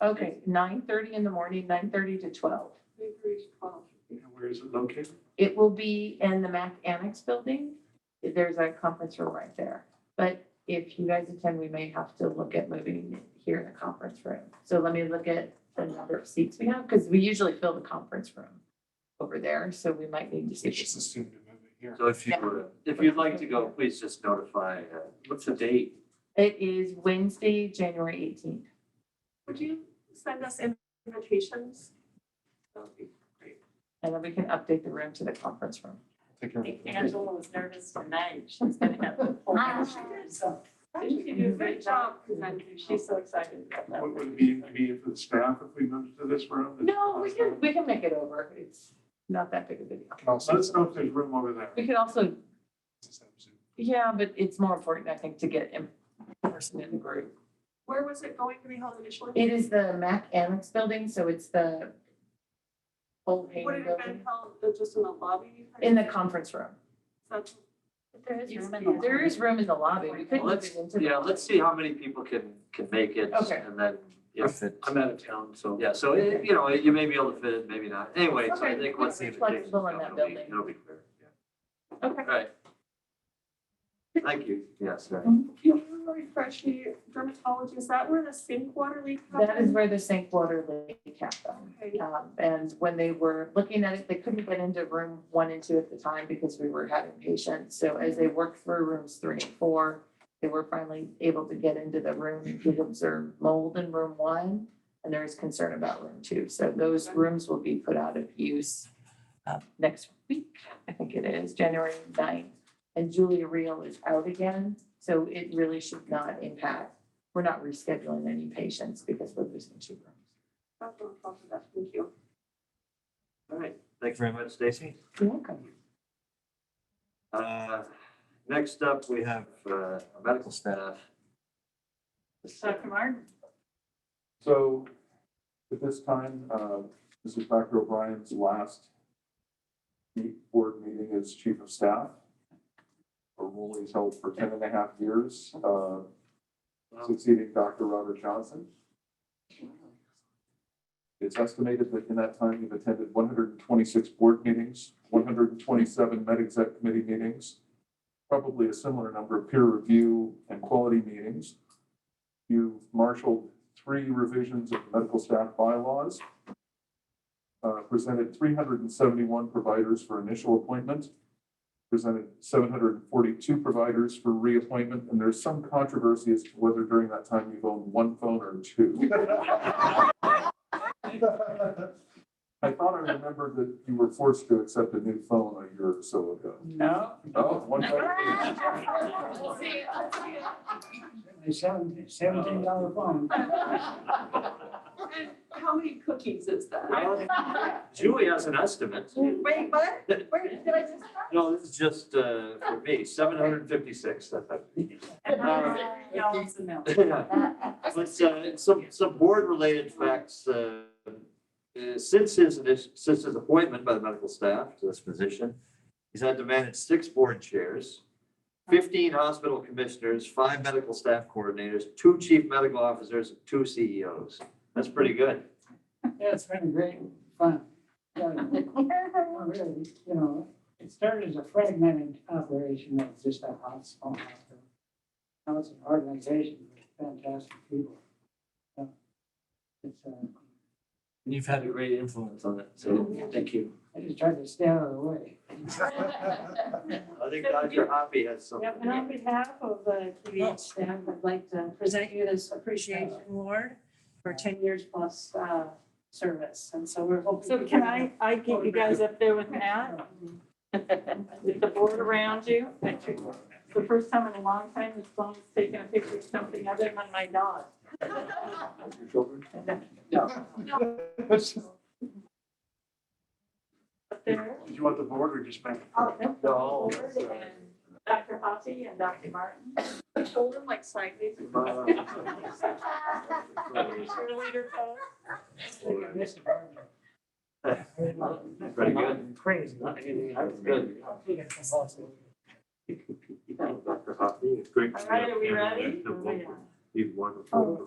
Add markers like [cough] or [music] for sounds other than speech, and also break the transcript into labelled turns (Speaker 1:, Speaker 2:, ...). Speaker 1: Okay, nine thirty in the morning, nine thirty to twelve.
Speaker 2: And Where is it located?
Speaker 1: It will be in the MAC Annex building. There's a conference room right there. But if you guys attend, we may have to look at moving here in the conference room. So let me look at the number of seats we have, because we usually fill the conference room over there, so we might need to see.
Speaker 2: Just assume to move it here.
Speaker 3: So if you, were- if you'd like to go, please just notify, uh, what's the date?
Speaker 1: It is Wednesday, January eighteenth.
Speaker 4: Would you send us invitations? That would be great.
Speaker 1: And then we can update the room to the conference room.
Speaker 2: Take
Speaker 5: I
Speaker 2: care.
Speaker 5: think Angela was nervous tonight. She's gonna have the whole
Speaker 4: Ah.
Speaker 5: house. So
Speaker 4: She did a great job presenting. She's so excited about that.
Speaker 2: What would it be, be for the staff if we moved to this room?
Speaker 1: No, we can, we can make it over. It's not that big of a deal.
Speaker 2: Let us know if there's room over there.
Speaker 1: We could also Yeah, but it's more important, I think, to get in person in the group.
Speaker 4: Where was it going to be held initially?
Speaker 1: It is the Mac Annex building, so it's the old
Speaker 4: Would
Speaker 1: Hayden
Speaker 4: it have been
Speaker 1: building
Speaker 4: held uh, just in the lobby?
Speaker 1: in the conference room.
Speaker 4: That's-
Speaker 5: There is room in the
Speaker 1: There is room in the lobby. We could
Speaker 3: Well,
Speaker 1: move
Speaker 3: let's,
Speaker 1: it into. the-
Speaker 3: yeah, let's see how many people can, can make it.
Speaker 1: Okay.
Speaker 3: And then, if,
Speaker 6: Perfect.
Speaker 3: I'm out of town, so, yeah, so, it- you know, you may be able to fit it, maybe not. Anyway, so I
Speaker 1: Okay,
Speaker 3: think once the
Speaker 1: it's flexible in that
Speaker 3: invitations come, it'll be-
Speaker 1: building.
Speaker 3: It'll be clear, yeah.
Speaker 1: Okay.
Speaker 3: Right. Thank you, yes, right.
Speaker 4: Can you refresh me, dermatology, is that where the sink water leak happened?
Speaker 1: That is where the St. Water Lake happened.
Speaker 4: Okay.
Speaker 1: Um, and when they were looking at it, they couldn't get into room one and two at the time because we were having patients. So as they worked through rooms three and four, they were finally able to get into the room. We observed mold in room one, and there is concern about room two. So those rooms will be put out of use uh, next week, I think it is, January 9th. And Julia Reel is out again, so it really should not impact. We're not rescheduling any patients because we're losing two rooms.
Speaker 4: That's what I'm talking about. Thank you.
Speaker 3: All right, thanks very much, Stacy.
Speaker 1: You're welcome.
Speaker 3: Uh, Next up, we have uh, our
Speaker 1: [laughs]
Speaker 3: medical staff.
Speaker 5: Dr. Martin?
Speaker 2: So at this time, uh, this is Dr. O'Brien's last meet- board meeting as chief of staff. A role he's held for ten and a half years, uh, succeeding Dr. Robert Johnson. It's estimated that in that time, you've attended one hundred and twenty-six board meetings, one hundred and twenty-seven med exec committee meetings, probably a similar number of peer review and quality meetings. You've marshaled three revisions of medical staff bylaws. uh, presented three hundred and seventy-one providers for initial appointment. Presented seven hundred and forty-two providers for reappointment, and there's some controversy as to whether during that time you've owned one phone or two. I thought I remembered that you were forced to accept a new phone a year or so ago.
Speaker 7: No.
Speaker 2: Oh, one phone.
Speaker 4: [laughs]
Speaker 7: A seventeen, seventeen dollar phone.
Speaker 1: [laughs]
Speaker 4: And how many cookies is that?
Speaker 3: Julie has an estimate.
Speaker 4: Wait, what? Where did I just?
Speaker 3: No, this is just uh, for me, seven hundred and fifty-six.
Speaker 5: And
Speaker 3: Uh,
Speaker 5: then Gallons of milk.
Speaker 3: But uh, some, some board-related facts, uh, uh, since his, init- since his appointment by the medical staff to this position, he's had to manage six board chairs, fifteen hospital commissioners, five medical staff coordinators, two chief medical officers, and two CEOs. That's pretty good.
Speaker 7: Yeah, it's been great fun.
Speaker 5: [laughs]
Speaker 7: Yeah, Really, you know, it started as a fragmented operation of just a hot small hospital. Now it's an organization with fantastic people. So, It's, uh,
Speaker 3: And you've had a great influence on it, so thank you.
Speaker 7: I just tried to stay out of the way.
Speaker 3: I think Dr. Hoppy has something.
Speaker 5: Yep, and on behalf of the
Speaker 7: Oh.
Speaker 5: QVH staff, I'd like to present you this appreciation award for ten years plus uh, service. And so we're hoping.
Speaker 8: So can I, I get you guys up there with Matt? With the board around you? It's The first time in a long time this phone's taken a picture of something other than my dog.
Speaker 2: Your children?
Speaker 8: Up there, Oh,
Speaker 2: Did you want the board or just me?
Speaker 8: all of them,
Speaker 3: No.
Speaker 2: uh,
Speaker 8: and Dr. Hoppy and Dr. Martin.
Speaker 4: Hold them like sideways.
Speaker 8: [laughs] Cheerleader pose.
Speaker 3: Pretty good.
Speaker 7: Crazy.
Speaker 3: That's good. Dr. Hoppy, it's great. to
Speaker 8: All right, are we
Speaker 3: meet you.
Speaker 8: ready? Oh.
Speaker 3: You've wonderful.